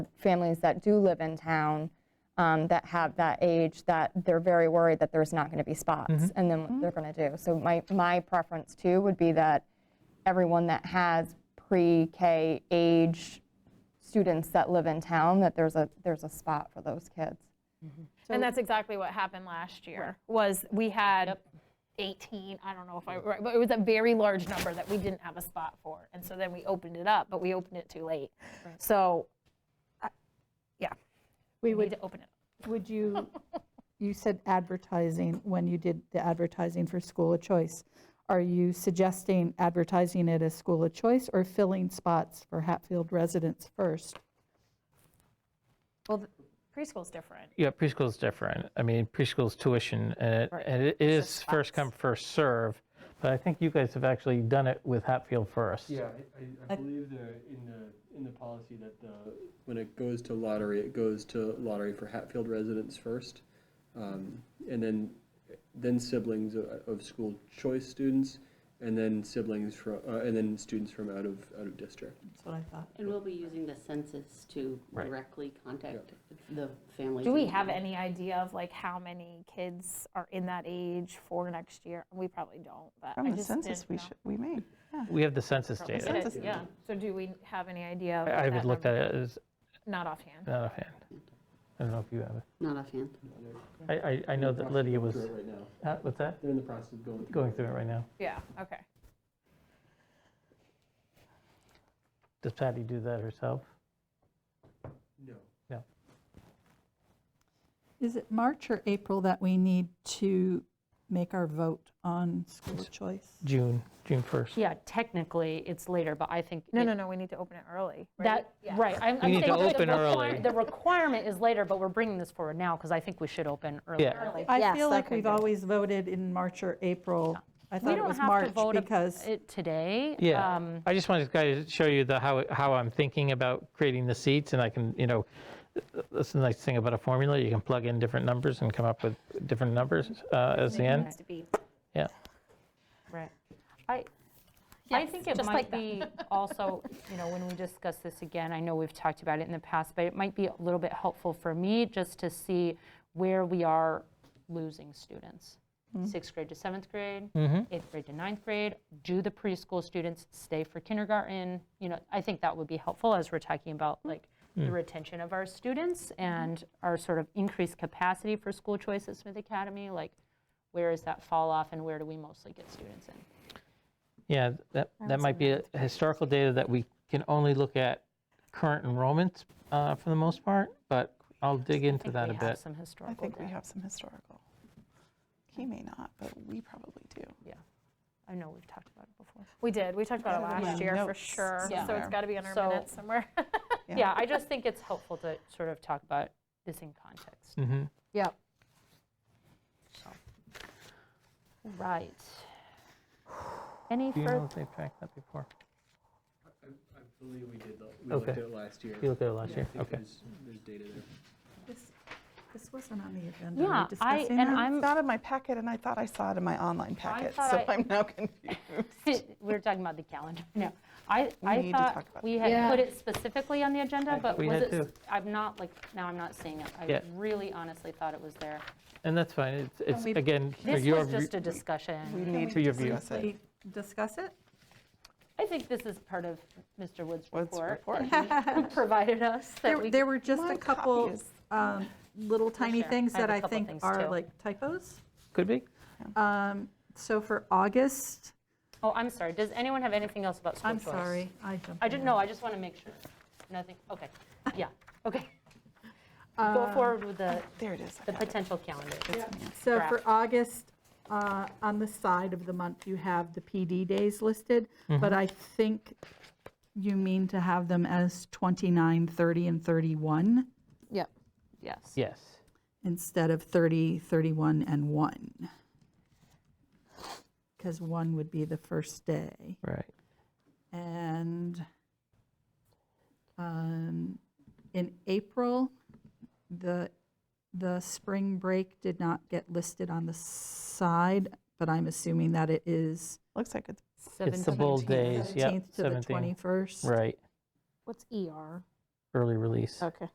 families that do live in town um, that have that age, that they're very worried that there's not going to be spots, and then what they're going to do. So my, my preference too would be that everyone that has pre-K age students that live in town, that there's a, there's a spot for those kids. And that's exactly what happened last year, was we had 18, I don't know if I, right, but it was a very large number that we didn't have a spot for. And so then we opened it up, but we opened it too late. So, I- yeah, We we need would, to open it. would you, you said advertising when you did the advertising for School of Choice. Are you suggesting advertising it as School of Choice or filling spots for Hatfield residents first? Well, th- preschool's different. Yeah, preschool's different. I mean, preschool's tuition, and it, and it is first come, first serve. But I think you guys have actually done it with Hatfield first. Yeah, I- I, I believe the, in the, in the policy that the, when it goes to lottery, it goes to lottery for Hatfield residents first. um, And then, then siblings of, of school choice students, and then siblings from, uh, and then students from out of, out of district. That's what I thought. And we'll be using the census to Right. directly contact the families. Do we in have town. any idea of like how many kids are in that age for next year? We probably don't, but I From the just census didn't we know. should, we made. We have the census We data. did census it, Yeah, so do we have any idea? of I I what haven't that looked at number- it as, Not offhand. not offhand. I don't know if you have it. Not offhand. I, I, I know that Lydia was, Through it right now. huh, what's that? They're in the process of going. Going through it right now. Yeah, okay. Does Patty do that herself? No. Is it March or April that we need to make our vote on School of Choice? June, June 1st. Yeah, technically, it's later, but I think. No, it- no, no, we need to open it early. That, right. I'm I'm need to saying that the open early. require- The requirement is later, but we're bringing this forward now because I think we should open early. Yeah. I feel like we've always voted in March or April. I We thought it don't was have to March vote ab- because, it today. Yeah, um, I just wanted to kind of show you the, how, how I'm thinking about creating the seats, and I can, you know, that's the nice thing about a formula, you can plug in different numbers and come up with different numbers uh, as the end. To be Yeah, Right. I, I think it just like might that. be also, you know, when we discuss this again, I know we've talked about it in the past, but it might be a little bit helpful for me just to see where we are losing students. Mm-hmm. Sixth grade to seventh grade, eighth grade to ninth grade, do the preschool students stay for kindergarten? You know, I think that would be helpful as we're talking about Mm. like the retention of our students Mm-hmm. and our sort of increased capacity for school choice at Smith Academy, like where is that fall off and where do we mostly get students in? yeah, that, that might be a historical data that we can only look at current enrollments uh, for the most part, but I'll dig I into think that a we have bit. some I historical think we data. have some historical. He may not, but we probably do. I know we've talked about it before. We did. We talked about it Gotta be last in year for notes sure. Yeah. So it's got to be in our So- minutes somewhere. Yeah. Yeah, I just think it's helpful to sort of talk about this in context. Mhm. Yeah. Right. Any Do you know further? if they've tracked that before? I, I believe we did, the- we Okay. looked at it last year. You looked at it last I year? think Okay. There's, there's data there. this wasn't on the agenda. Are we Yeah, I, discussing and that? It's I'm, not in my packet, and I thought I saw it in my online packet, thought so I- I'm now confused. we're talking about the calendar now. I, We need I to thought talk about we had Yeah. put it specifically on the agenda, but we was had it, s- too. I'm not, like, now I'm not seeing it. Yeah. I really honestly thought it was there. And that's fine, it's, it's, we- again, for This your, was view- just a discussion. We need for your view. discuss it. We Discuss it? I think this is part of Mr. Wood's What's report. report? Who provided us that There we. there were just My a couple copies. um, little tiny sure. things I have that a I couple think things, are too. like typos. could be? Um, So for August, Oh, I'm sorry. Does anyone have anything else about school I'm choice? sorry, I jumped. I didn't know. I just want to make sure. Nothing, okay. Yeah, okay. Uh, Go forward with the, There it is. I the got it. potential calendar. So for Draft. August, uh, on the side of the month, you have the PD days listed, Mm-hmm. but I think you mean to have them as 29, 30, and 31 Yep. Yes. Yes. instead of 30, 31, and 1. Because 1 would be the first day. Right. And um, in April, the, the spring break did not get listed on the side, but I'm assuming that it is Looks like it's It's the bold days, yep. 17th to the 17th. 21st. Right. What's ER? early release. Okay.